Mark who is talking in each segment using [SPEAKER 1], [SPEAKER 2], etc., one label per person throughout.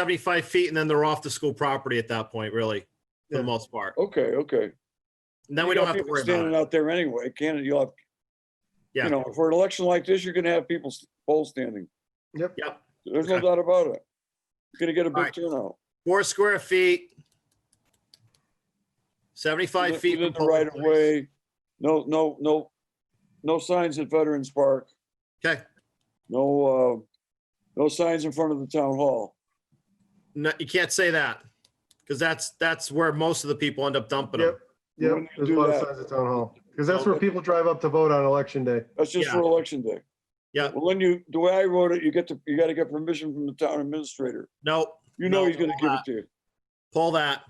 [SPEAKER 1] 75 feet and then they're off the school property at that point, really, for
[SPEAKER 2] Yeah.
[SPEAKER 1] the most part.
[SPEAKER 2] Okay, okay.
[SPEAKER 1] And then we
[SPEAKER 2] You
[SPEAKER 1] don't
[SPEAKER 2] got
[SPEAKER 1] have to
[SPEAKER 2] people
[SPEAKER 1] worry about
[SPEAKER 2] Standing
[SPEAKER 1] it.
[SPEAKER 2] out there anyway, Canada, you'll have,
[SPEAKER 1] Yeah.
[SPEAKER 2] you know, for an election like this, you're gonna have people s- poll standing.
[SPEAKER 1] Yep.
[SPEAKER 2] There's no
[SPEAKER 1] Okay.
[SPEAKER 2] doubt about it. You're Gonna get a big
[SPEAKER 1] Alright.
[SPEAKER 2] turnout.
[SPEAKER 1] Four square feet. 75
[SPEAKER 2] Within-
[SPEAKER 1] feet.
[SPEAKER 2] within
[SPEAKER 1] from
[SPEAKER 2] the Right
[SPEAKER 1] public
[SPEAKER 2] of
[SPEAKER 1] place.
[SPEAKER 2] way, no, no, no, no signs at Veterans Park,
[SPEAKER 1] Okay.
[SPEAKER 2] no, uh, no signs in front of the town hall.
[SPEAKER 1] No, you can't say that because that's, that's where most of the people end up dumping them.
[SPEAKER 3] Yep, yep,
[SPEAKER 2] Wouldn't
[SPEAKER 3] there's a
[SPEAKER 2] do
[SPEAKER 3] lot of
[SPEAKER 2] that.
[SPEAKER 3] signs at town hall, because that's where people drive up to vote on election day.
[SPEAKER 2] That's just
[SPEAKER 1] Yeah.
[SPEAKER 2] for election day.
[SPEAKER 1] Yeah.
[SPEAKER 2] Well, then you, the way I wrote it, you get to, you gotta get permission from the town administrator.
[SPEAKER 1] No,
[SPEAKER 2] You know
[SPEAKER 1] No,
[SPEAKER 2] he's gonna
[SPEAKER 1] all
[SPEAKER 2] give it
[SPEAKER 1] that.
[SPEAKER 2] to you.
[SPEAKER 1] pull that.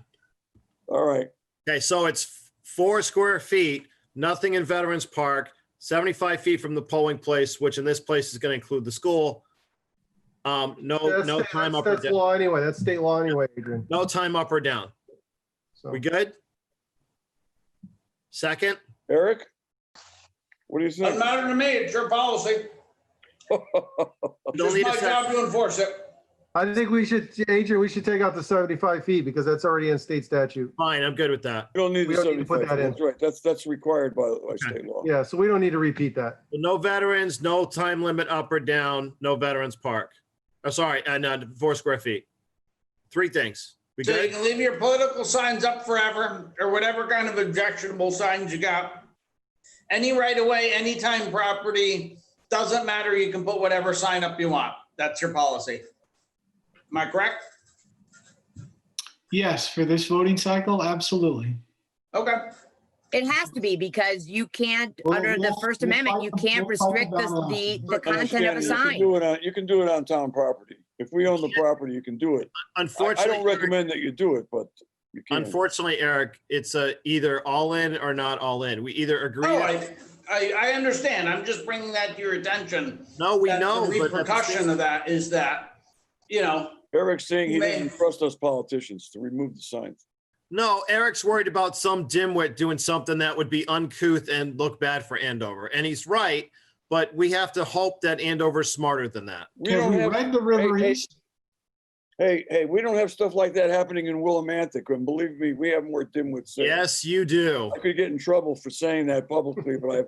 [SPEAKER 2] All right,
[SPEAKER 1] Okay, so it's four square feet, nothing in Veterans Park, 75 feet from the polling place, which in this place is going to include the school. Um, no,
[SPEAKER 3] That's-
[SPEAKER 1] no time
[SPEAKER 3] that's-
[SPEAKER 1] up or
[SPEAKER 3] That's
[SPEAKER 1] down,
[SPEAKER 3] law anyway, that's state law anyway, Adrian.
[SPEAKER 1] no time up or down.
[SPEAKER 3] So,
[SPEAKER 1] We good? Second,
[SPEAKER 2] Eric? What do you
[SPEAKER 4] Doesn't
[SPEAKER 2] think?
[SPEAKER 4] matter to me, it's your policy.
[SPEAKER 1] don't
[SPEAKER 4] It's
[SPEAKER 1] need a
[SPEAKER 4] my
[SPEAKER 1] second.
[SPEAKER 4] job to enforce it.
[SPEAKER 3] I think we should, Adrian, we should take out the 75 feet because that's already in state statute.
[SPEAKER 1] Fine, I'm good with that.
[SPEAKER 2] You don't need
[SPEAKER 3] We
[SPEAKER 2] the
[SPEAKER 3] don't need to put
[SPEAKER 2] 75.
[SPEAKER 3] that in.
[SPEAKER 2] That's right. That's, that's required by, by state law.
[SPEAKER 3] Yeah, so we don't need to repeat that.
[SPEAKER 1] No veterans, no time limit up or down, no Veterans Park. Oh, sorry, and uh, four square feet. Three things. We
[SPEAKER 4] So you
[SPEAKER 1] good?
[SPEAKER 4] can leave your political signs up forever or whatever kind of objectionable signs you got. Any right of way, anytime property, doesn't matter. You can put whatever sign up you want. That's your policy. Am I correct?
[SPEAKER 5] Yes, for this voting cycle, absolutely.
[SPEAKER 4] Okay.
[SPEAKER 6] It has to be because you can't,
[SPEAKER 5] Well,
[SPEAKER 6] under the
[SPEAKER 5] we'll-
[SPEAKER 6] First
[SPEAKER 5] we'll
[SPEAKER 6] Amendment, you
[SPEAKER 5] talk-
[SPEAKER 6] can't
[SPEAKER 5] we'll talk
[SPEAKER 6] restrict
[SPEAKER 5] about
[SPEAKER 6] the, the, the
[SPEAKER 2] I
[SPEAKER 6] content of
[SPEAKER 2] understand
[SPEAKER 6] a
[SPEAKER 2] you can
[SPEAKER 6] sign.
[SPEAKER 2] Do it on, you can do it on town property. If we own the property, you can do it. I- I
[SPEAKER 1] Unfortunately,
[SPEAKER 2] don't
[SPEAKER 1] Eric-
[SPEAKER 2] recommend that you do it, but you can.
[SPEAKER 1] unfortunately, Eric, it's a either all in or not all in. We either agree.
[SPEAKER 4] Oh, I, I, I understand. I'm just bringing that to your attention.
[SPEAKER 1] No, we
[SPEAKER 4] that the
[SPEAKER 1] know, but at the
[SPEAKER 4] Repercussion
[SPEAKER 1] same-
[SPEAKER 4] of that is that, you know,
[SPEAKER 2] Eric's saying he doesn't
[SPEAKER 4] Man.
[SPEAKER 2] trust us politicians to remove the signs.
[SPEAKER 1] no, Eric's worried about some dimwit doing something that would be uncouth and look bad for Andover. And he's right, but we have to hope that Andover's smarter than that.
[SPEAKER 2] We
[SPEAKER 5] Have
[SPEAKER 2] don't
[SPEAKER 5] we
[SPEAKER 2] have,
[SPEAKER 5] read the River
[SPEAKER 2] hey, hey.
[SPEAKER 5] East?
[SPEAKER 2] hey, hey, we don't have stuff like that happening in Willimantic. And believe me, we have more dimwits. there.
[SPEAKER 1] Yes, you do.
[SPEAKER 2] I could get in trouble for saying that publicly, but I,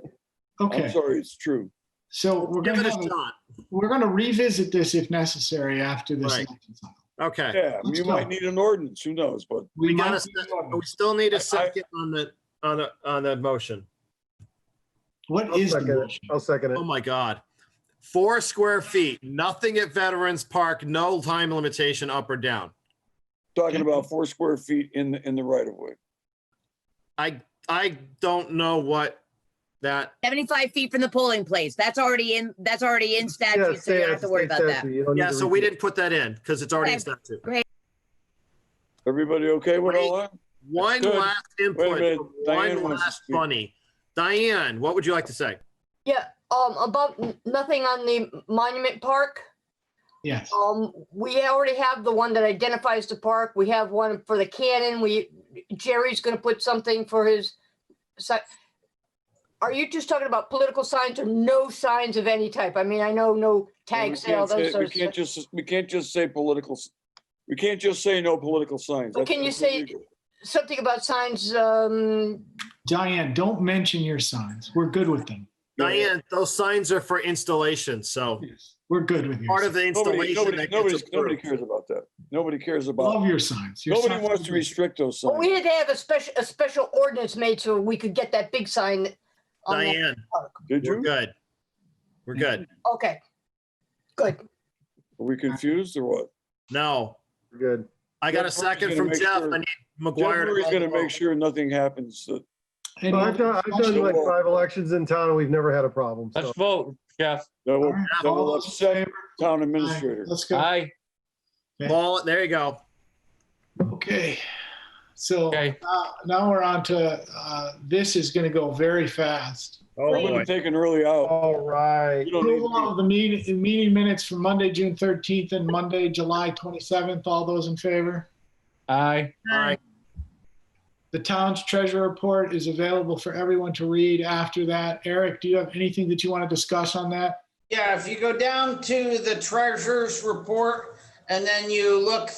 [SPEAKER 2] I'm
[SPEAKER 5] Okay,
[SPEAKER 2] sorry, it's true.
[SPEAKER 5] so we're
[SPEAKER 1] Give it
[SPEAKER 5] gonna
[SPEAKER 1] a
[SPEAKER 5] have,
[SPEAKER 1] shot.
[SPEAKER 5] a- we're gonna revisit this if necessary after this.
[SPEAKER 1] Right.
[SPEAKER 5] election cycle.
[SPEAKER 1] Okay.
[SPEAKER 2] Yeah,
[SPEAKER 5] Let's
[SPEAKER 2] you might
[SPEAKER 5] go.
[SPEAKER 2] need an ordinance, who knows, but
[SPEAKER 5] We
[SPEAKER 1] We got
[SPEAKER 5] might
[SPEAKER 1] a
[SPEAKER 5] be-
[SPEAKER 1] sec- we still need
[SPEAKER 2] I- I-
[SPEAKER 1] a second on the, on the, on the motion.
[SPEAKER 5] What
[SPEAKER 3] I'll
[SPEAKER 5] is the
[SPEAKER 3] second it.
[SPEAKER 5] motion?
[SPEAKER 3] I'll second it.
[SPEAKER 1] Oh my God. Four square feet, nothing at Veterans Park, no time limitation up or down.
[SPEAKER 2] talking about four square feet in, the in the right of way.
[SPEAKER 1] I, I don't know what that,
[SPEAKER 6] Seventy-five feet from the polling place. That's already in, that's already in
[SPEAKER 3] Yeah,
[SPEAKER 6] statute, so you
[SPEAKER 3] state-
[SPEAKER 6] don't have to
[SPEAKER 3] state
[SPEAKER 6] worry about that.
[SPEAKER 3] statute. You don't need
[SPEAKER 1] yeah,
[SPEAKER 3] to
[SPEAKER 1] so we
[SPEAKER 3] repeat it.
[SPEAKER 1] didn't put that in because it's already in
[SPEAKER 6] Okay.
[SPEAKER 1] statute.
[SPEAKER 2] Everybody okay with all that?
[SPEAKER 1] One
[SPEAKER 2] Good.
[SPEAKER 1] last
[SPEAKER 2] Wait a
[SPEAKER 1] input,
[SPEAKER 2] minute,
[SPEAKER 1] from
[SPEAKER 2] Diane
[SPEAKER 1] one
[SPEAKER 2] wants to
[SPEAKER 1] last
[SPEAKER 2] speak.
[SPEAKER 1] bunny. Diane, what would you like to say?
[SPEAKER 7] Yeah, um, about n- nothing on the Monument Park.
[SPEAKER 5] Yes,
[SPEAKER 7] Um, we already have the one that identifies the park. We have one for the cannon. We, Jerry's gonna put something for his. si- Are you just talking about political signs or no signs of any type? I mean, I know no
[SPEAKER 2] And
[SPEAKER 7] tag
[SPEAKER 2] we
[SPEAKER 7] sale,
[SPEAKER 2] can't
[SPEAKER 7] those
[SPEAKER 2] say- We
[SPEAKER 7] sorts of.
[SPEAKER 2] can't just, we can't just say political, s- we can't just say no political signs.
[SPEAKER 7] Well,
[SPEAKER 2] That's-
[SPEAKER 7] can you
[SPEAKER 2] that's
[SPEAKER 7] say-
[SPEAKER 2] illegal.
[SPEAKER 7] Something about signs, um,
[SPEAKER 5] Diane, don't mention your signs. We're good with them.
[SPEAKER 1] Diane, those signs are for installation, so
[SPEAKER 5] We're good with your,
[SPEAKER 1] part of
[SPEAKER 5] signs.
[SPEAKER 1] the
[SPEAKER 2] Nobody,
[SPEAKER 1] installation
[SPEAKER 2] nobody,
[SPEAKER 1] that gets
[SPEAKER 2] nobody's- nobody
[SPEAKER 1] approved.
[SPEAKER 2] cares about that. Nobody cares
[SPEAKER 5] love
[SPEAKER 2] about,
[SPEAKER 5] your signs. Your
[SPEAKER 2] nobody
[SPEAKER 5] signs
[SPEAKER 2] wants
[SPEAKER 5] are
[SPEAKER 2] to
[SPEAKER 5] good.
[SPEAKER 2] restrict those
[SPEAKER 7] well, we
[SPEAKER 2] signs.
[SPEAKER 7] had to have a special, a special ordinance made so we could get that big sign. on that
[SPEAKER 1] Diane,
[SPEAKER 7] park.
[SPEAKER 2] Did
[SPEAKER 1] we're
[SPEAKER 2] you? Are
[SPEAKER 1] good. We're good.
[SPEAKER 7] Okay. Good.
[SPEAKER 2] we confused or what?
[SPEAKER 1] No,
[SPEAKER 3] Good.
[SPEAKER 1] I got a
[SPEAKER 2] Jeff Murray's
[SPEAKER 1] second
[SPEAKER 2] gonna
[SPEAKER 1] from
[SPEAKER 2] make
[SPEAKER 1] Jeff.
[SPEAKER 2] sure-
[SPEAKER 1] I need
[SPEAKER 2] Jeff
[SPEAKER 1] McGuire. to
[SPEAKER 2] Murray's
[SPEAKER 1] call
[SPEAKER 2] gonna
[SPEAKER 1] the roll.
[SPEAKER 2] make sure nothing happens. that-
[SPEAKER 5] Any
[SPEAKER 3] Well, I've done,
[SPEAKER 5] other
[SPEAKER 3] I've done
[SPEAKER 5] discussion?
[SPEAKER 3] like five elections in town and we've never had a problem. So
[SPEAKER 8] Let's vote, Jeff.
[SPEAKER 2] That
[SPEAKER 5] All
[SPEAKER 2] will,
[SPEAKER 5] right,
[SPEAKER 2] that
[SPEAKER 5] all
[SPEAKER 2] will
[SPEAKER 5] those in
[SPEAKER 2] upset
[SPEAKER 5] favor?
[SPEAKER 2] town
[SPEAKER 5] All right,
[SPEAKER 2] administrator.
[SPEAKER 5] Let's go.
[SPEAKER 8] Aye.
[SPEAKER 1] Ball, there you go.
[SPEAKER 5] Okay, so
[SPEAKER 8] Okay.
[SPEAKER 5] uh, now we're on to, uh, this is gonna go very fast.
[SPEAKER 1] Oh,
[SPEAKER 2] I'm
[SPEAKER 1] boy.
[SPEAKER 2] gonna take an early out.
[SPEAKER 3] All right.
[SPEAKER 2] You don't need
[SPEAKER 5] Approval
[SPEAKER 2] to
[SPEAKER 5] of the meeting, meeting minutes for Monday, June 13th and Monday, July 27th. All those in favor?
[SPEAKER 8] Aye.
[SPEAKER 1] All right.
[SPEAKER 5] The town's treasure report is available for everyone to read after that. Eric, do you have anything that you want to discuss on that?
[SPEAKER 4] Yeah, if you go down to the treasurer's report, And then you look